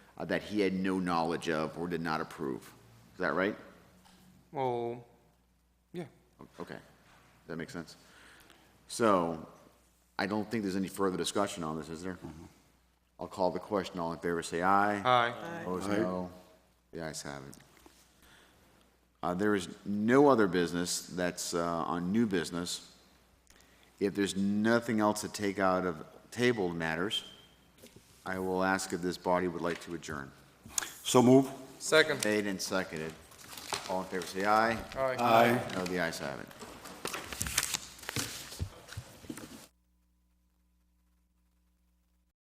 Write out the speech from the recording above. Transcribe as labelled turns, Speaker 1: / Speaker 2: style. Speaker 1: uh, that he had no knowledge of or did not approve. Is that right?
Speaker 2: Well, yeah.
Speaker 1: Okay, Does that make sense? So, I don't think there's any further discussion on this, is there? I'll call the question, all in favor, say aye.
Speaker 2: Aye.
Speaker 1: Opposed, no. The ayes have it. Uh, There is no other business that's uh, on new business. If there's nothing else to take out of tabled matters, I will ask if this body would like to adjourn.
Speaker 3: So move.
Speaker 2: Second.
Speaker 1: Made and seconded. All in favor, say aye.
Speaker 2: Aye.
Speaker 1: No, the ayes have it.